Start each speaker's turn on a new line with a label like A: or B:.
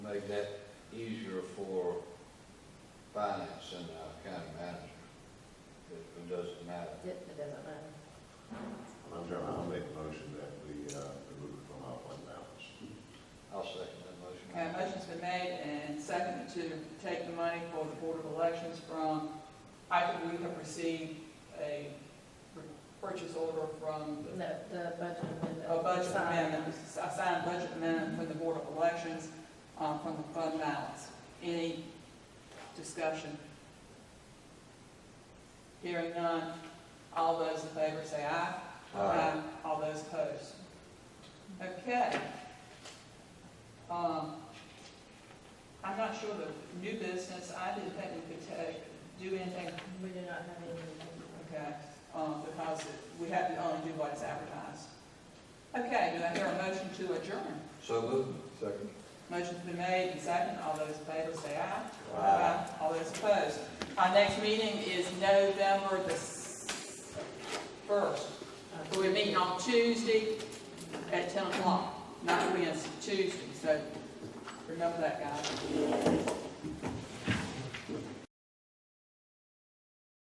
A: make that easier for finance and our county manager. It it doesn't matter.
B: It it doesn't matter.
C: Madam Chairman, I'll make a motion that we uh, remove it from our fund balance.
A: I'll second
D: Okay,
A: that
D: a
A: motion.
D: Uh, motion's been made and seconded to take the money for the Board of Elections from, after we have received a purchase order from the
B: No, the budget amendment.
D: a Oh, budget amendment, a signed budget amendment from the Board of Elections, um, from the fund balance. Any discussion? Hearing none, all those in favor say aye. All those opposed. Okay. Um, I'm not sure the new business, I didn't think we could take, do anything,
B: We do not have any.
D: okay, um, because we have to only do what is advertised. Okay, do I hear a motion to adjourn?
A: So moved. Second.
D: Motion's been made and seconded, all those in favor say aye.
A: Aye.
D: All those opposed. Our next meeting is November the s- first. We're meeting on Tuesday at ten o'clock, not Wednesday, Tuesday, so remember that, guys.